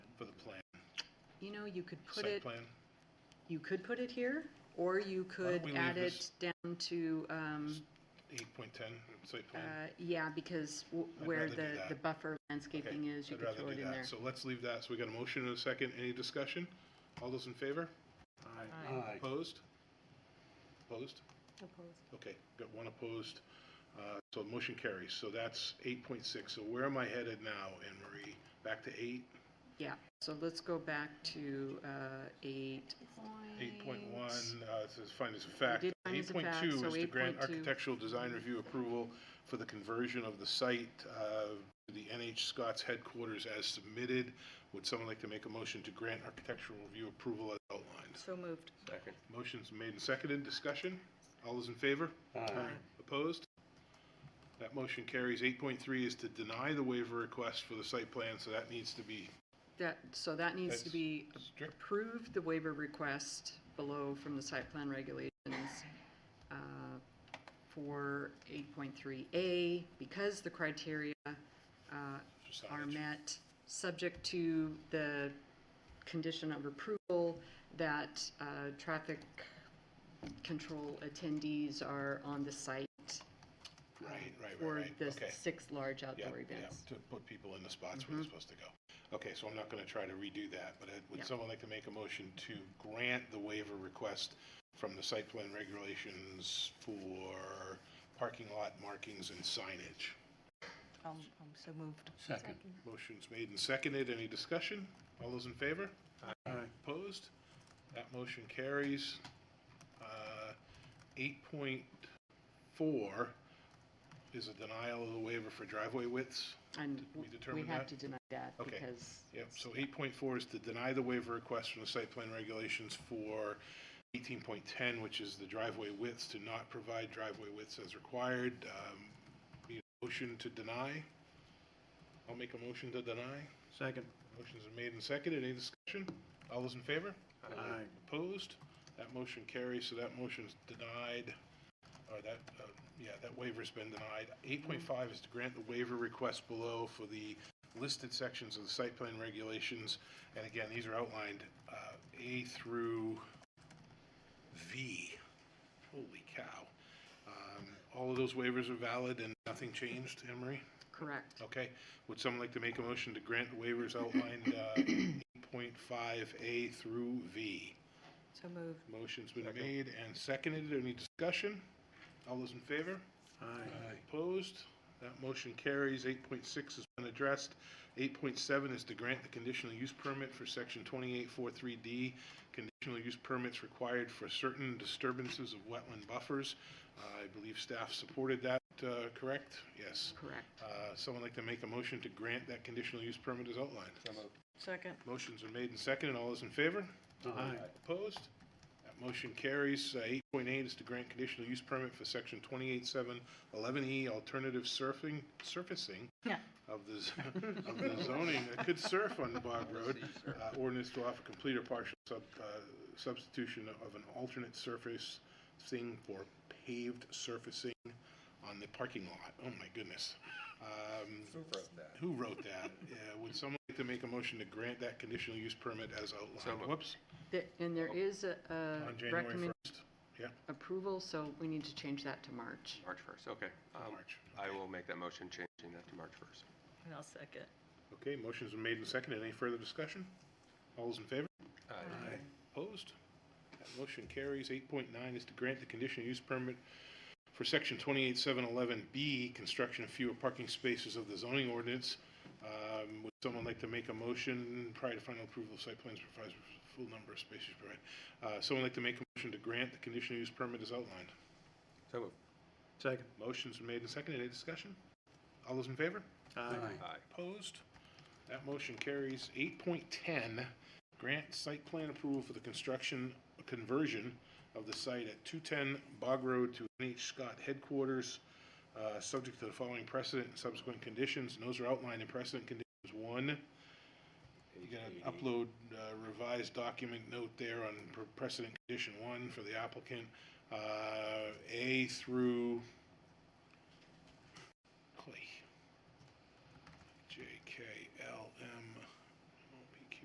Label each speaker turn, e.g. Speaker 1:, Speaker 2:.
Speaker 1: you know, you could put
Speaker 2: site
Speaker 1: it,
Speaker 2: plan.
Speaker 1: you could put it here, or you could
Speaker 2: we leave
Speaker 1: add it
Speaker 2: this-
Speaker 1: down to, um,
Speaker 2: Eight point ten, site
Speaker 1: uh,
Speaker 2: plan.
Speaker 1: yeah, because w-
Speaker 2: I'd
Speaker 1: where
Speaker 2: rather do
Speaker 1: the,
Speaker 2: that.
Speaker 1: the buffer
Speaker 2: Okay,
Speaker 1: landscaping is, you
Speaker 2: I'd
Speaker 1: could
Speaker 2: rather
Speaker 1: throw
Speaker 2: do
Speaker 1: it in there.
Speaker 2: that. So let's leave that. So we got a motion and a second. Any discussion? All those in favor?
Speaker 3: Aye.
Speaker 2: Opposed? Opposed? Okay, got one opposed. Uh, So motion carries. So that's eight point six. So where am I headed now, Anne Marie? Back to eight?
Speaker 1: Yeah, so let's go back to, uh, eight
Speaker 2: Eight point one, uh, it says findings of fact.
Speaker 1: did
Speaker 2: Eight
Speaker 1: findings of
Speaker 2: point
Speaker 1: fact,
Speaker 2: two
Speaker 1: so
Speaker 2: is to grant
Speaker 1: 8.2.
Speaker 2: architectural design review approval for the conversion of the site, uh, to the NH Scott's headquarters as submitted. Would someone like to make a motion to grant architectural review approval as outlined?
Speaker 4: So moved.
Speaker 3: Second.
Speaker 2: Motion's made and seconded. Discussion? All those in favor?
Speaker 1: Uh,
Speaker 3: Aye.
Speaker 2: Opposed? That motion carries. Eight point three is to deny the waiver request for the site plan, so that needs to be
Speaker 1: That, so that needs to
Speaker 2: That's-
Speaker 1: be
Speaker 2: strict.
Speaker 1: approved, the waiver request below from the site plan regulations uh, for 8.3A, because the criteria uh,
Speaker 2: for
Speaker 1: are
Speaker 2: signage.
Speaker 1: met, subject to the condition of approval that uh, traffic control attendees are on the site
Speaker 2: Right, right, right,
Speaker 1: for
Speaker 2: right.
Speaker 1: the
Speaker 2: Okay.
Speaker 1: six large
Speaker 2: Yeah,
Speaker 1: outdoor
Speaker 2: yeah,
Speaker 1: events.
Speaker 2: to put people in the spots where they're supposed to go. Okay, so I'm not going to try to redo that, but uh, would
Speaker 1: Yeah.
Speaker 2: someone like to make a motion to grant the waiver request from the site plan regulations for parking lot markings and signage?
Speaker 4: Um, um, so moved.
Speaker 3: Second.
Speaker 2: Motion's made and seconded. Any discussion? All those in favor?
Speaker 3: Aye.
Speaker 2: Opposed? That motion carries. Uh, 8.4 is a denial of the waiver for driveway widths.
Speaker 1: And
Speaker 2: we
Speaker 1: we
Speaker 2: determine
Speaker 1: have
Speaker 2: that?
Speaker 1: to deny that
Speaker 2: Okay.
Speaker 1: because
Speaker 2: Yep, so eight point four is to deny the waiver request from the site plan regulations for eighteen point ten, which is the driveway widths, to not provide driveway widths as required. Um, Need a motion to deny? I'll make a motion to deny.
Speaker 3: Second.
Speaker 2: Motion's been made and seconded. Any discussion? All those in favor?
Speaker 3: Aye.
Speaker 2: Opposed? That motion carries, so that motion's denied, or that, uh, yeah, that waiver's been denied. Eight point five is to grant the waiver request below for the listed sections of the site plan regulations. And again, these are outlined, uh, A through V. Holy cow. Um, All of those waivers are valid and nothing changed, Emery?
Speaker 1: Correct.
Speaker 2: Okay, would someone like to make a motion to grant the waivers outlined, uh, 8.5A through V?
Speaker 4: So moved.
Speaker 2: Motion's been made and seconded. Any discussion? All those in favor?
Speaker 3: Aye.
Speaker 2: Opposed? That motion carries. 8.6 has been addressed. 8.7 is to grant the conditional use permit for section 2843D. Conditional use permits required for certain disturbances of wetland buffers. Uh, I believe staff supported that, uh, correct? Yes.
Speaker 1: Correct.
Speaker 2: Uh, Someone like to make a motion to grant that conditional use permit as outlined?
Speaker 4: Second.
Speaker 2: Motion's been made and seconded. All those in favor?
Speaker 3: Aye.
Speaker 2: Opposed? That motion carries. Uh, 8.8 is to grant conditional use permit for section 28711E E, alternative surfing, surfacing
Speaker 4: Yeah.
Speaker 2: of the, z- of the zoning. I could surf on the Bog Road. Uh, Ordinance to offer complete or partial sub- uh, substitution of an alternate surface thing for paved surfacing on the parking lot. Oh, my goodness. Um, Who wrote that? Yeah, Would someone like to make a motion to grant that conditional use permit as outlined? Whoops.
Speaker 1: There- And there is a-
Speaker 2: Oh. On
Speaker 1: a
Speaker 2: January
Speaker 1: Uh, recommend
Speaker 2: 1st, yeah,
Speaker 1: approval, so we need to change that to March.
Speaker 5: March 1st, okay. Um,
Speaker 2: March.
Speaker 5: I will make that motion, changing that to March 1st.
Speaker 4: And I'll second.
Speaker 2: Okay, motions are made and seconded. Any further discussion? All those in favor?
Speaker 3: Aye.
Speaker 2: Opposed? That motion carries. 8.9 is to grant the conditional use permit for section 28711B, construction of fewer parking spaces of the zoning ordinance. Um, Would someone like to make a motion prior to final approval of site plans provides for full number of spaces provided? Uh, Someone like to make a motion to grant the conditional use permit as outlined?
Speaker 5: So moved.
Speaker 3: Second.
Speaker 2: Motion's been made and seconded. Any discussion? All those in favor?
Speaker 3: Aye.
Speaker 5: Aye.
Speaker 2: Opposed? That motion carries. Eight point ten, grant site plan approval for the construction, conversion of the site at two ten Bog Road to NH Scott headquarters, uh, subject to the following precedent and subsequent conditions, and those are outlined in precedent conditions one. You gotta upload uh, revised document note there on pre- precedent condition one for the applicant, uh, A through, holy